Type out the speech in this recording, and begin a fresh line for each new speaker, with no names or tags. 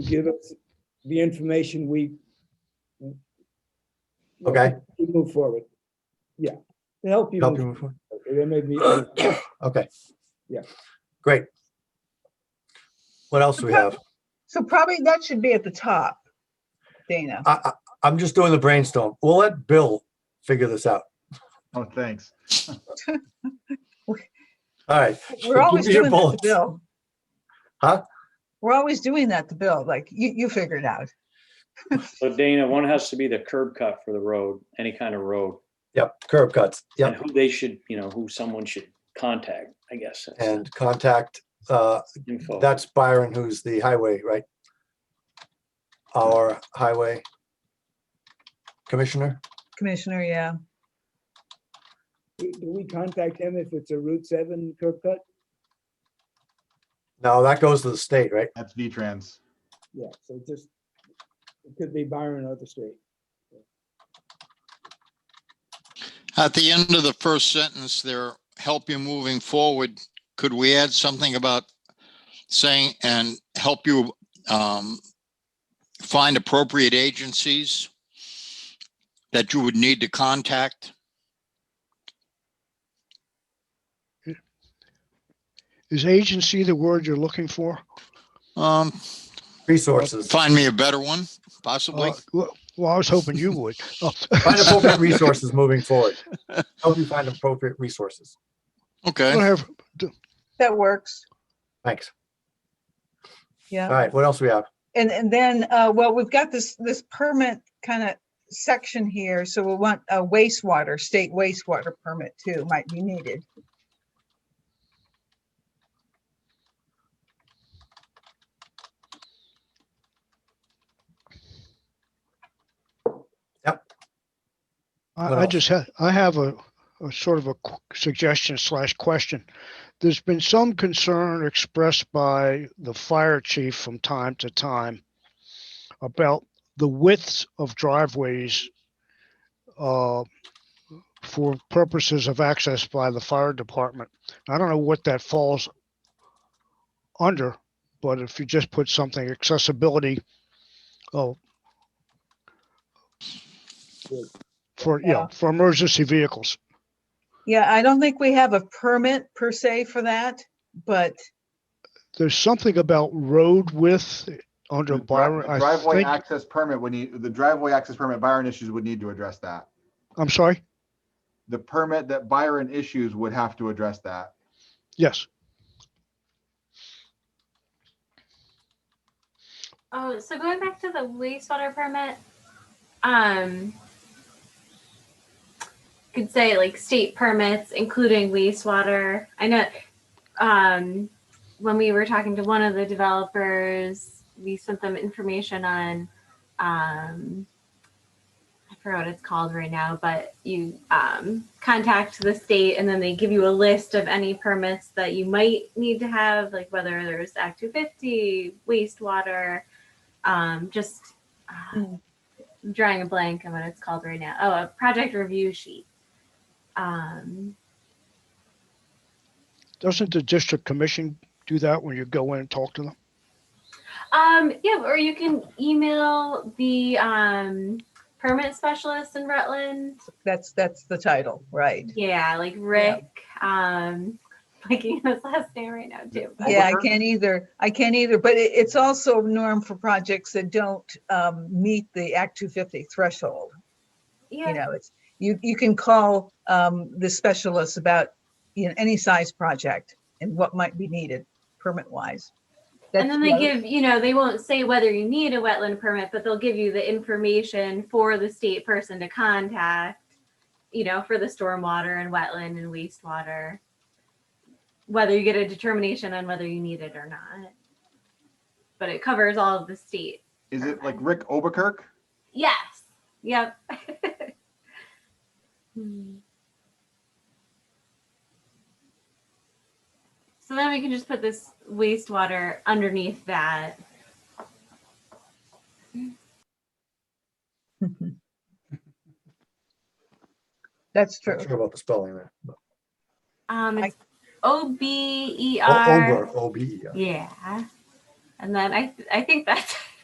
give us the information we
Okay,
we move forward. Yeah, to help you.
help you
move
move forward.
forward. There may be,
Okay.
Yeah.
Great. What else do we have?
So probably that should be at the top, Dana.
I, I, I'm just doing the brainstorm. We'll let Bill figure this out.
Oh, thanks.
All right,
We're always
give me your
doing that to
bullets.
Bill.
Huh?
We're always doing that to Bill, like you, you figure it out.
So Dana, one has to be the curb cut for the road, any kind of road.
yep, curb cuts,
And
yep,
who they should, you know, who someone should contact, I guess. that's
and contact, uh,
Info.
that's Byron, who's the highway, right? Our highway commissioner?
Commissioner, yeah.
do we contact him if it's a Route 7 curb cut?
No, that goes to the state, right?
That's V-Trans.
Yeah, so just, it could be Byron or the street.
At the end of the first sentence there, help you moving forward, could we add something about saying, and help you um, find appropriate agencies that you would need to contact?
Is agency the word you're looking for?
Um,
Resources,
Find me a better one, possibly.
Uh, Well, well, I was hoping you would. Oh,
find appropriate resources moving forward. Help you find appropriate resources.
Okay,
Whatever.
That works.
Thanks.
Yeah.
All right, what else we have?
And, and then, uh, well, we've got this, this permit kind of section here, so we want a wastewater, state wastewater permit too, might be needed.
What
I, I
else?
just had, I have a, a sort of a qu- suggestion slash question. There's been some concern expressed by the fire chief from time to time about the widths of driveways uh, for purposes of access by the fire department. I don't know what that falls under, but if you just put something accessibility, oh, for, you
Yeah.
know, for emergency vehicles.
Yeah, I don't think we have a permit per se for that, but
there's something about road width under
The dri-
Byron.
the
I
Driveway
think,
access permit would need, the driveway access permit Byron issues would need to address that.
I'm sorry.
The permit that Byron issues would have to address that.
Yes.
Oh, so going back to the wastewater permit, um, could say like state permits, including wastewater. I know, um, when we were talking to one of the developers, we sent them information on, um, I forgot what it's called right now, but you um, contact the state and then they give you a list of any permits that you might need to have, like whether there's Act 250, wastewater, um, just uh,
Mm.
drawing a blank on what it's called right now. Oh, a project review sheet. Um,
Doesn't the district commission do that when you go in and talk to them?
Um, yeah, or you can email the um, permit specialist in Rutland.
that's, that's the title, right?
Yeah, like Rick. Um, blanking on his last name right now too. but-
Yeah, I
Overtime?
can't either. I can't either, but it, it's also a norm for projects that don't um, meet the Act 250 threshold. You
yeah.
know, it's, you, you can call um, the specialists about, you know, any size project and what might be needed permit wise.
And then they give, you know, they won't say whether you need a wetland permit, but they'll give you the information for the state person to contact, you know, for the stormwater and wetland and wastewater. Whether you get a determination on whether you need it or not. But it covers all of the state.
Is it like Rick Oberkirk?
Yes. Yep. Hmm. So then we can just put this wastewater underneath that.
That's true.
Not sure about the spelling there. but-
Um,
I-
it's O B E
O- Ober,
R.
O B E R.
Yeah. And then I, I think that's